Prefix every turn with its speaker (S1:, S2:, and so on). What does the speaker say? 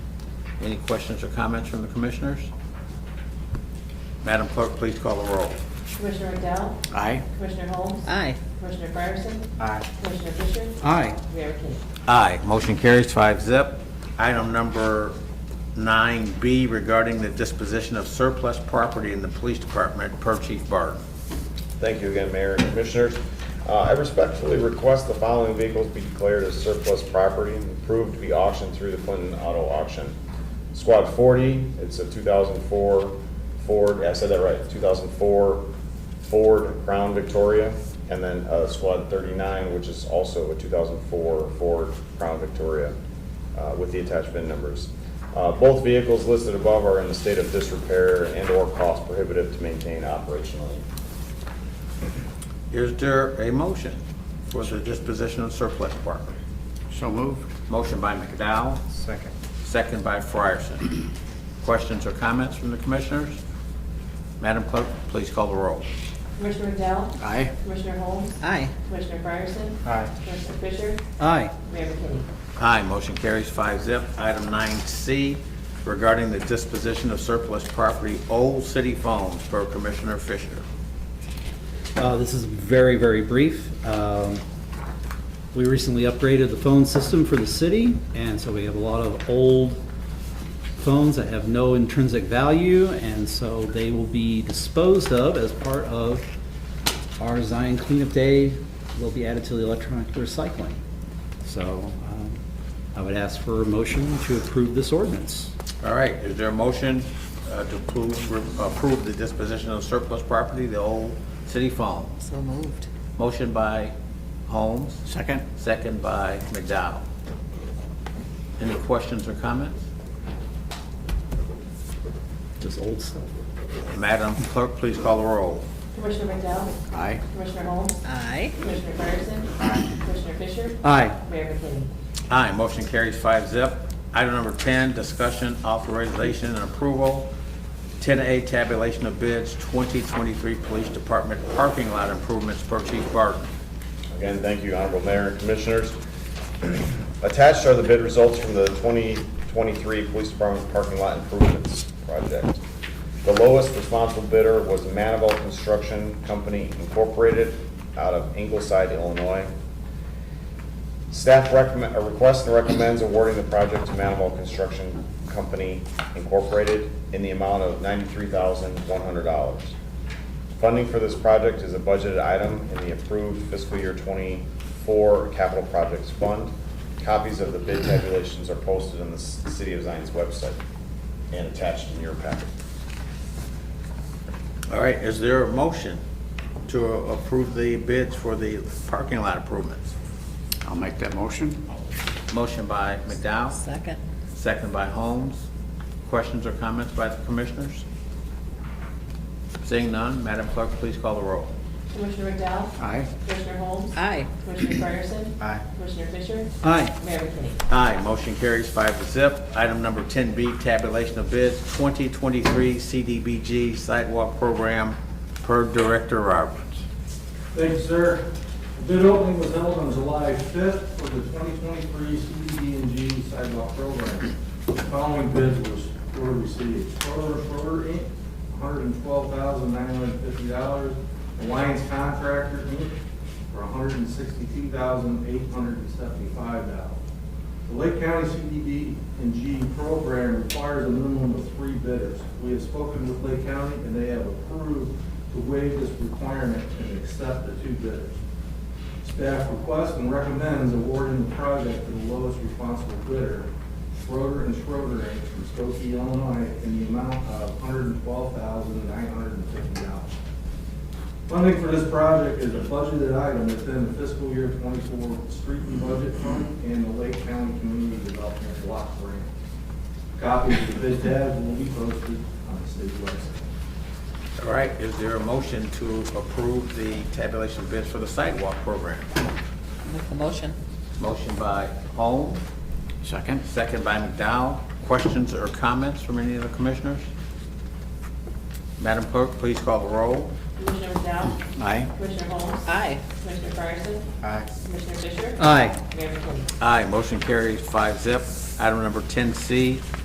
S1: Any questions or comments from the commissioners? Madam Clerk, please call the roll.
S2: Commissioner McDowell?
S1: Aye.
S2: Commissioner Holmes?
S3: Aye.
S2: Commissioner Fryerson?
S1: Aye.
S2: Commissioner Fisher?
S3: Aye.
S2: Mayor King?
S1: Aye, motion carries five zip. Item number nine B regarding the disposition of surplus property in the police department per Chief Barton.
S4: Thank you again, Mayor and Commissioners. Uh, I respectfully request the following vehicles be declared as surplus property and approved to be auctioned through the Clinton Auto Auction. Squad 40, it's a 2004 Ford, yeah, I said that right, 2004 Ford Crown Victoria. And then uh, Squad 39, which is also a 2004 Ford Crown Victoria uh, with the attached VIN numbers. Uh, Both vehicles listed above are in a state of disrepair and/or cost prohibitive to maintain operationally.
S1: Is there a motion for the disposition of surplus property?
S3: So moved.
S1: Motion by McDowell,
S3: Second.
S1: second by Frierson. Questions or comments from the commissioners? Madam Clerk, please call the roll.
S2: Commissioner McDowell?
S3: Aye.
S2: Commissioner Holmes?
S3: Aye.
S2: Commissioner Fryerson?
S3: Aye.
S2: Commissioner Fisher?
S3: Aye.
S2: Mayor King?
S1: Aye, motion carries five zip. Item nine C, regarding the disposition of surplus property, old city phones, per Commissioner Fisher.
S5: Uh, This is very, very brief. Um, We recently upgraded the phone system for the city, and so we have a lot of old phones that have no intrinsic value, and so they will be disposed of as part of our Zion Cleanup Day. They'll be added to the electronic recycling. So um, I would ask for a motion to approve this ordinance.
S1: All right, is there a motion uh, to approve, approve the disposition of surplus property, the old city phone?
S3: So moved.
S1: Motion by Holmes,
S3: Second.
S1: second by McDowell. Any questions or comments?
S5: Just old stuff.
S1: Madam Clerk, please call the roll.
S2: Commissioner McDowell?
S3: Aye.
S2: Commissioner Holmes?
S3: Aye.
S2: Commissioner Fryerson? Commissioner Fisher?
S5: Aye.
S2: Mayor King?
S1: Aye, motion carries five zip. Item number 10, discussion, authorization, and approval, 10A tabulation of bids, 2023 Police Department parking lot improvements per Chief Barton.
S4: Again, thank you, Honorable Mayor and Commissioners. Attached are the bid results from the 2023 Police Department Parking Lot Improvements Project. The lowest responsible bidder was Manival Construction Company Incorporated out of Ingleside, Illinois. Staff recommend, uh, requests and recommends awarding the project to Manival Construction Company Incorporated in the amount of $93,100. Funding for this project is a budgeted item in the approved fiscal year '24 capital projects fund. Copies of the bid tabulations are posted on the C- City of Zion's website and attached in your packet.
S1: All right, is there a motion to approve the bids for the parking lot improvements?
S6: I'll make that motion.
S1: Motion by McDowell,
S3: Second.
S1: second by Holmes. Questions or comments by the commissioners? Seeing none, Madam Clerk, please call the roll.
S2: Commissioner McDowell?
S6: Aye.
S2: Commissioner Holmes?
S3: Aye.
S2: Commissioner Fryerson?
S1: Aye.
S2: Commissioner Fisher?
S5: Aye.
S2: Mayor King?
S1: Aye, motion carries five to zip. Item number 10B, tabulation of bids, 2023 CDBG sidewalk program per Director Roberts.
S7: Thank you, sir. The Bid opening was held on July 5th for the 2023 CDBG sidewalk program. The following bids was- were received. Schroeder Schroeder Inc., $112,950. Alliance Contractor Inc., for $162,875. The Lake County CDBG program requires a minimum of three bidders. We have spoken with Lake County, and they have approved to waive this requirement and accept the two bidders. Staff requests and recommends awarding the project to the lowest responsible bidder, Schroeder and Schroeder Inc. from Skokie, Illinois, in the amount of $112,950. Funding for this project is a budgeted item within the fiscal year twenty-four street and budget fund and the Lake County Community Development Block Grant. Copies of the bid tab will be posted on the city website.
S1: All right, is there a motion to approve the tabulation bids for the sidewalk program?
S3: Make the motion.
S1: Motion by Holmes,
S6: Second?
S1: second by McDowell. Questions or comments from any of the commissioners? Madam Clerk, please call the roll.
S2: Commissioner McDowell?
S6: Aye.
S2: Commissioner Holmes?
S3: Aye.
S2: Commissioner Fryerson?
S6: Aye.
S2: Commissioner Fisher?
S5: Aye.
S2: Mayor King?
S1: Aye, motion carries five zip. Item number 10C,